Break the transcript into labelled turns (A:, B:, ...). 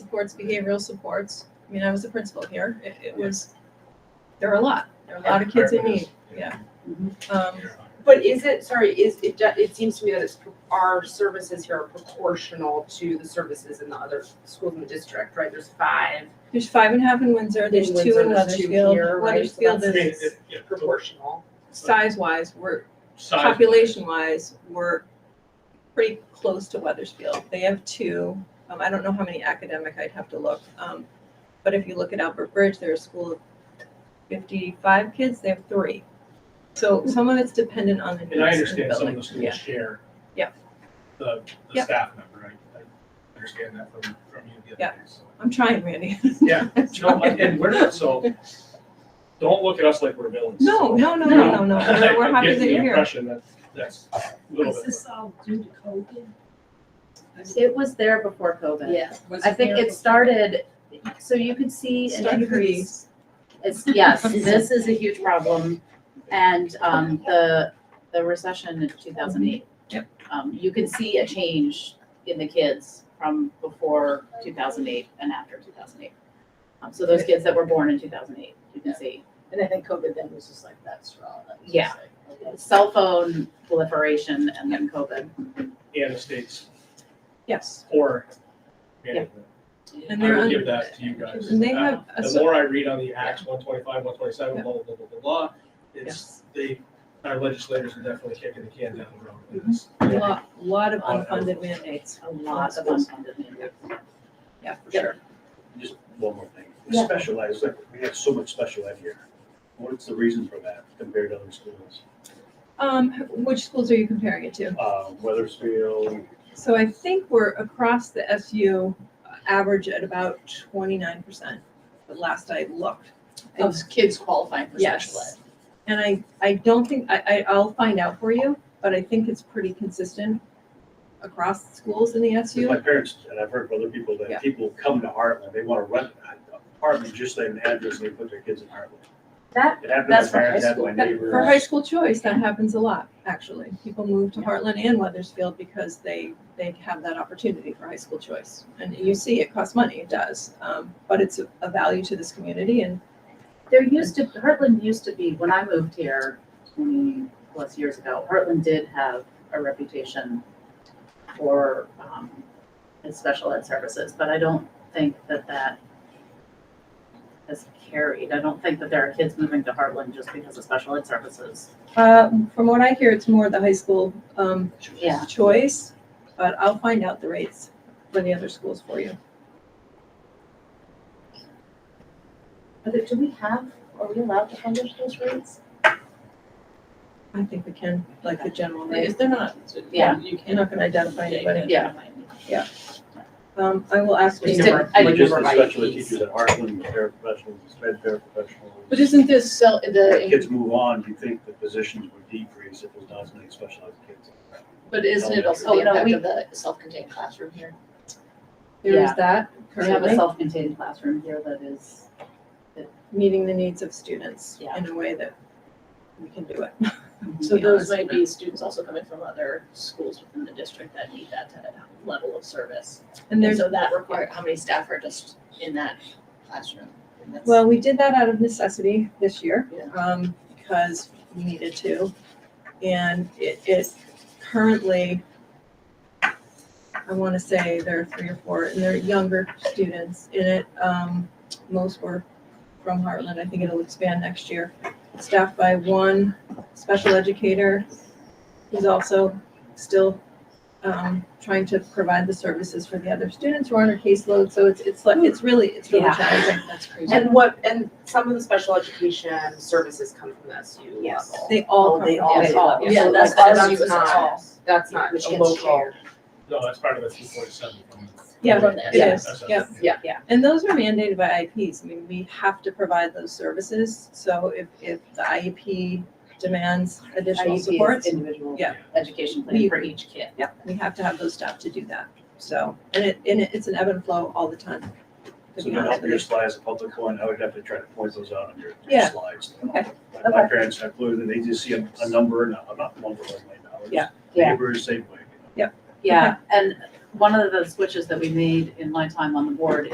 A: supports, behavioral supports. I mean, I was the principal here. It, it was, there were a lot. There were a lot of kids in need. Yeah. Um,
B: Mm-hmm.
C: But is it, sorry, is, it, do- it seems to me that it's, pro- our services here are proportional to the services in the other schools in the district, right? There's five
A: there's five and a half in Windsor. There's
C: In
A: two
C: Windsor,
A: in
C: there's two
A: Weathersfield.
C: here, right?
A: Weathersfield
C: So
A: is
C: proportional.
A: size-wise, we're
B: Size.
A: population-wise, we're pretty close to Weathersfield. They have two. Um, I don't know how many academic. I'd have to look. Um, but if you look at Albert Bridge, they're a school of fifty-five kids. They have three. So some of it's dependent on the needs
B: Mm-hmm. And I
A: of the
B: understand some of
A: building.
B: the
A: Yeah.
B: schools share.
A: Yeah.
B: The, the
A: Yeah.
B: staff member, I, I understand that from, from you the
A: Yeah.
B: other day, so.
A: I'm trying, Randy.
B: Yeah.
A: I'm
B: No,
A: trying.
B: and we're not, so, don't look at us like we're villains.
A: No, no, no, no, no, no. We're- We're happy that you're
B: I
A: here.
B: get the impression that, that's a little
D: Was
B: bit.
D: this all due to COVID?
E: It was there before COVID.
D: Yeah. was
E: I think
D: there
E: it started, so you could see an
A: Start
E: increase.
A: Greece.
E: It's, yes, this is a huge problem and, um, the, the recession in two thousand eight.
A: Yep.
E: Um, you can see a change in the kids from before two thousand eight and after two thousand eight. Um, so those kids that were born in two thousand eight, you can see.
F: And I think COVID then was just like that straw. that was just
E: Yeah.
F: like, okay.
E: Cell phone proliferation and then COVID.
B: And the state's
A: Yes.
B: poor management.
A: And
B: I
A: they're
B: would
A: under.
B: give that to you guys.
A: And they
B: Uh,
A: have a
B: The
A: so-
B: more I read on the acts, one twenty-five, one twenty-seven,
A: Yeah.
B: blah, blah, blah, blah, blah, blah, it's,
A: Yes.
B: they, our legislators are definitely kicking the can down the road. with this.
A: lot, lot of unfunded mandates.
E: A lot of unfunded mandates.
A: Yeah, for
E: Yep.
A: sure.
G: Just one more thing.
F: Yeah.
G: Special ed, it's like, we have so much special ed here. What's the reason for that compared to other schools?
A: Um, which schools are you comparing it to?
G: Uh, Weathersfield,
A: So I think we're across the SU average at about twenty-nine percent, the last I looked.
F: Of kids qualifying for special ed.
A: Yes. And I, I don't think, I, I, I'll find out for you, but I think it's pretty consistent across schools in the
G: Because My
A: SU.
G: parents, and I've heard from other people,
A: Yeah.
G: that people come to Heartland, they want to rent an apartment, just like an address, and they put their kids in Heartland.
E: That-
G: It happened
E: that's
G: to
E: for
G: my
E: high
G: parents,
E: school.
G: happened to my
A: But For high
G: neighbors.
A: school choice, that happens a lot, actually. People move to Heartland and Weathersfield because they, they have that opportunity for high school choice. And you see, it costs money, it does, um, but it's a- a value to this community and
E: There used to, Heartland used to be, when I moved here twenty plus years ago, Heartland did have a reputation for, um, its special ed services, but I don't think that that has carried. I don't think that there are kids moving to Heartland just because of special ed services.
A: Uh, from what I hear, it's more the high school, um,
E: Yeah.
A: choice, but I'll find out the rates for the other schools for you.
E: But do we have, are we allowed to publish those rates?
A: I think we can, like the general
F: Because
A: rate.
F: they're not,
E: Yeah.
F: you can't.
A: You're not gonna identify anybody.
E: Yeah.
A: Um, I will ask
E: Just
A: Jennifer.
E: I
G: But
E: didn't
G: just
E: remember
G: the
E: my
G: special ed
E: fees.
G: teachers at Heartland, the paraprofessionals, the sped paraprofessionals.
F: But isn't this, so-
G: If
F: the,
G: Kids move on, you think the positions would decrease if there's not as many specialized kids.
F: but isn't it also
E: Oh,
F: the
E: no,
F: impact
E: we-
F: of the self-contained classroom here?
A: There is that
E: We have a
A: currently,
E: self-contained classroom here that is,
A: meeting the needs of students
E: Yeah.
A: in a way that we can do it.
F: So
A: Yeah.
F: those might be students also coming from other schools within the district that need that type of level of service.
A: And there's,
F: So that require, how many staff are just in that classroom? And that's-
A: well, we did that out of necessity this year,
F: Yeah.
A: um, because we needed to. And it is currently I want to say there are three or four, and they're younger students in it. Um, most were from Heartland. I think it'll expand next year. Staffed by one special educator who's also still um, trying to provide the services for the other students who are on her caseload. So it's it's like it's really it's really
E: Yeah.
A: challenging.
F: That's crazy.
C: And
A: And
C: what, and some of the special education services come from uh, the SU level.
E: Yes.
A: They all
E: Oh,
A: come
E: they
A: from
E: all-
A: the
E: they
A: SU.
E: all-
A: Yeah.
F: Yeah,
C: So,
F: that's,
C: like,
F: that's,
C: that's
F: that's
C: not-
F: all.
C: That's not
F: Which
C: a
F: gets
C: local.
F: shared.
B: No, that's part of the two forty-seven.
A: Yeah, it is.
B: That's-
A: Yeah.
E: Yeah.
A: And those are mandated by IEPs. I mean, we have to provide those services. So if, if the IEP demands additional
E: IEPs,
A: supports,
E: individual
A: Yeah.
E: education
A: We-
E: plan for each kid.
A: yeah, we have to have those staff to do that. So, and it, and it- it's an ebb and flow all the time. to
G: So
A: be
G: to
A: honest
G: help
A: with
G: your
A: you.
G: slides, a public one, I would have to try to point those out on your your
A: Yeah.
G: slides.
A: Okay.
G: My- My parents have blue, and they just see a, a number, and I'm not one for my dollars.
A: Yeah.
E: Yeah.
G: Neighbors, same way. you know.
E: Yeah, and one of the switches that we made in my time on the board